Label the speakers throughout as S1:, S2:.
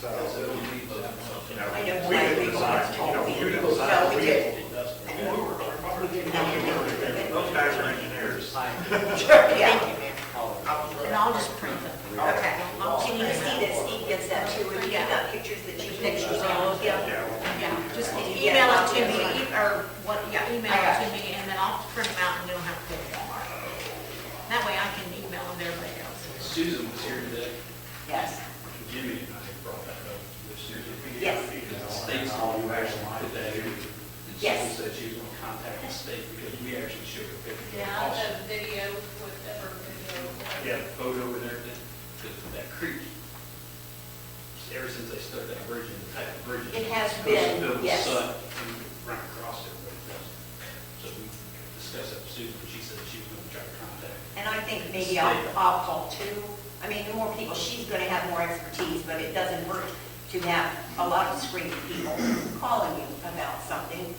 S1: so.
S2: I
S1: You know,
S2: know
S1: we
S2: my
S1: did
S2: people
S1: design,
S2: are
S1: you know, we did
S2: told
S1: design.
S2: me. No, we didn't.
S1: We did not. Those guys are engineers.
S2: Yeah. And I'll just print them. Okay. Can you see that Steve gets that too, if you got pictures that you can choose on? Yeah.
S3: Yeah, just
S2: Yeah,
S3: email it
S2: that's
S3: to me,
S2: good.
S3: e- or what, yeah, email
S2: I got
S3: it to me, and then I'll print them out and don't have to go to Walmart. That way I can email them to everybody else.
S4: Susan was here today,
S2: Yes.
S4: Jimmy and I brought that up with Susan.
S2: Yes.
S4: The state's on the action today. And
S2: Yes.
S4: Susan said she was gonna contact the state because we actually showed her picture.
S5: Yeah, the video, whatever video. whatever.
S4: Yeah, photo and everything, because of that creek. Ever since they started that bridge and the type of bridge.
S2: It has been,
S4: Goes to the
S2: yes.
S4: sun and Run across it, but it doesn't. So we discussed that with Susan, and she said she was gonna try to contact.
S2: And I think maybe I'll, I'll call two. I mean, the more people, she's gonna have more expertise, but it doesn't hurt to have a lot of screen people calling you about something.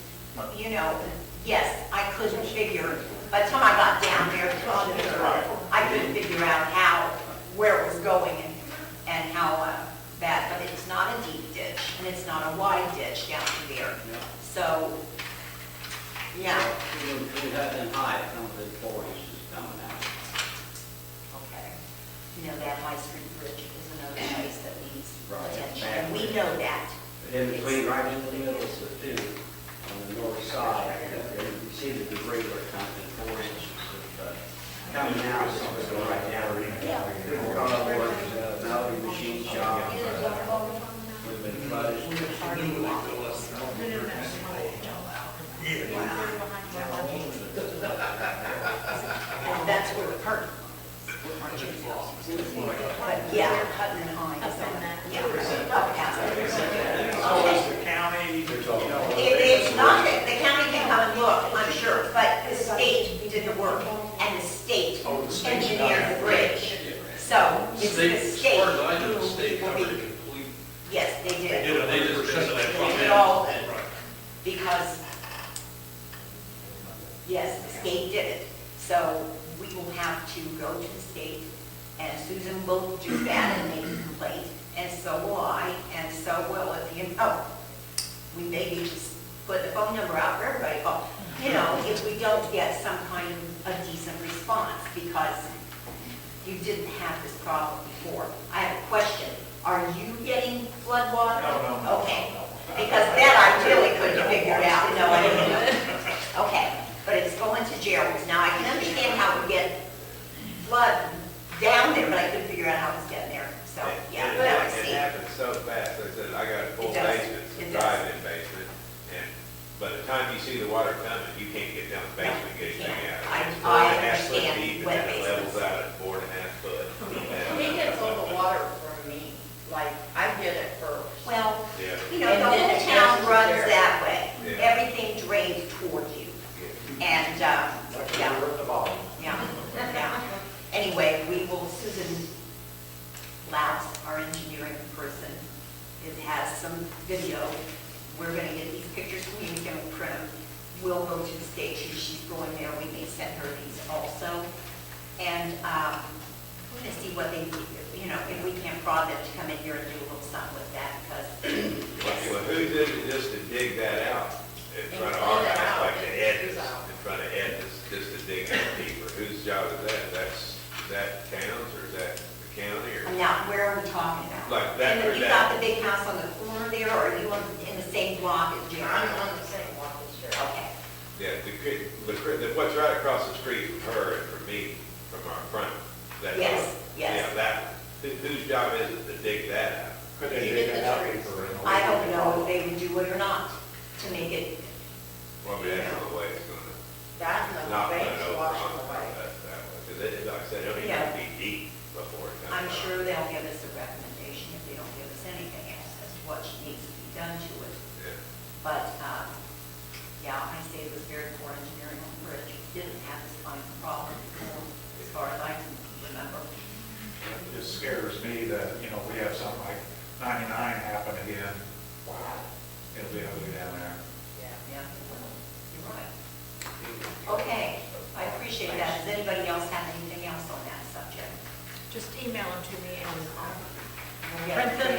S2: You know, yes, I couldn't figure, by the time I got down there, twelve years ago, I couldn't figure out how, where it was going and, and how uh, bad, but it's not a deep ditch, and it's not a wide ditch down there.
S6: Yeah.
S2: So, yeah,
S6: It would- it would have been high if some of the quarries just coming out.
S2: Okay. You know, that High Street Bridge is another place that needs
S6: Right,
S2: attention,
S6: bad.
S2: and we know that.
S6: But In between, right in the middle is the two, on the north side, there you can see the debris where it comes in four inches of, uh, coming out, so it's going right down. People gone up there, uh, Melody Machine Shop, uh, we've been flooded.
S2: And that's where the curtain. But yeah, cutting and high.
S3: Up in that.
S2: Yeah, up past it.
S1: It's always the county, you know.
S2: It is not that the county can come and look, I'm sure, but the state did the work, and the state
S1: Oh, the state's not-
S2: engineered the bridge. So it's the
S4: As
S2: state.
S4: far as I know, the state
S2: who will
S4: covered it
S2: be-
S4: completely.
S2: Yes, they did.
S4: They just said that
S2: They did
S4: from
S2: it all
S4: them. Right.
S2: because, yes, the state did it. So we will have to go to the state, and Susan will do that and make a complaint, and so will I, and so will, Oh, if you know, we maybe just put the phone number out for everybody, but, you know, if we don't get some kind of a decent response, because you didn't have this problem before. I have a question, are you getting flood water?
S1: No, no, no,
S2: Okay,
S1: no,
S2: because that I really couldn't figure it out, no, I didn't know. Okay, but it's going to Gerald's. Now, I can understand how we get flood down there, but I couldn't figure out how it's getting there, so, yeah,
S7: It-
S2: that I
S7: It
S2: see.
S7: happened so fast, I said, I got a full
S2: It does.
S7: basement,
S2: It
S7: a
S2: does.
S7: drive-in basement, and by the time you see the water coming, you can't get down the basement, and get anything
S2: Yeah.
S7: out.
S2: I-
S7: It's four
S2: I
S7: and a half foot
S2: understand
S7: deep, and
S2: wet
S7: then it levels
S2: basements.
S7: out at four and uh, a half foot.
S8: He gets all the water from me, like, I get it first.
S2: Well,
S7: Yeah.
S2: you know, the
S8: And then it
S2: whole town
S8: goes
S2: runs
S8: there.
S2: that way.
S7: Yeah.
S2: Everything drains toward you, and, uh, yeah.
S6: At the bottom.
S2: Yeah, yeah. Anyway, we will, Susan Laus, our engineering person, it has some video. We're going to get these pictures from you, we can print them. We'll go to the state, She- she's going there, we may send her these also. And um, we're going to see what they, you know, if we can prod them to come in here and do a little something with that,
S7: Well, well,
S2: because,
S7: who did it just to dig that out in
S8: And
S7: front of
S8: clean
S7: our
S8: it
S7: house,
S8: out,
S7: like
S8: and
S7: the
S8: dig
S7: edges,
S8: it out.
S7: in front of edges, just to dig that deeper? Whose job is that? That's, is that town's, or is that the county, or?
S2: now, where are we talking about?
S7: Like that
S2: And
S7: or
S2: if you got
S7: that?
S2: the big house on the corner there, or are you on- in the same block as Jerry?
S8: I'm on the same one as you.
S2: Okay.
S7: Yeah, the, cri- the, cri- the- what's right across the street from her and from me, from our front. that-
S2: Yes, yes.
S7: Yeah, that, who- whose job is it to dig that out?
S1: Could they dig it out deeper? in the
S2: I don't know if they would do it or not to make it,
S7: Probably that's the way it's gonna,
S8: That and
S7: not
S8: the
S7: put
S8: banks
S7: it over
S8: wash
S7: on
S8: them away.
S7: that, that way. Cause it, like I said, it'll
S2: Yeah.
S7: even be deep before it comes out.
S2: I'm sure they'll give us a recommendation if they don't give us anything else as to what needs to be done to it.
S7: Yeah.
S2: But, um, yeah, I say it was very poor engineering on the bridge. Didn't have this kind of problem before, as far as I can remember.
S1: It just scares me that, you know, we have something like ninety-nine happen again. Wow, it'll be ugly down there.
S8: Yeah.
S2: Yeah, well, you're right. Okay, I appreciate that. Does anybody else have anything else on that subject?
S3: Just email them to me and I'll
S2: Yeah.
S3: print them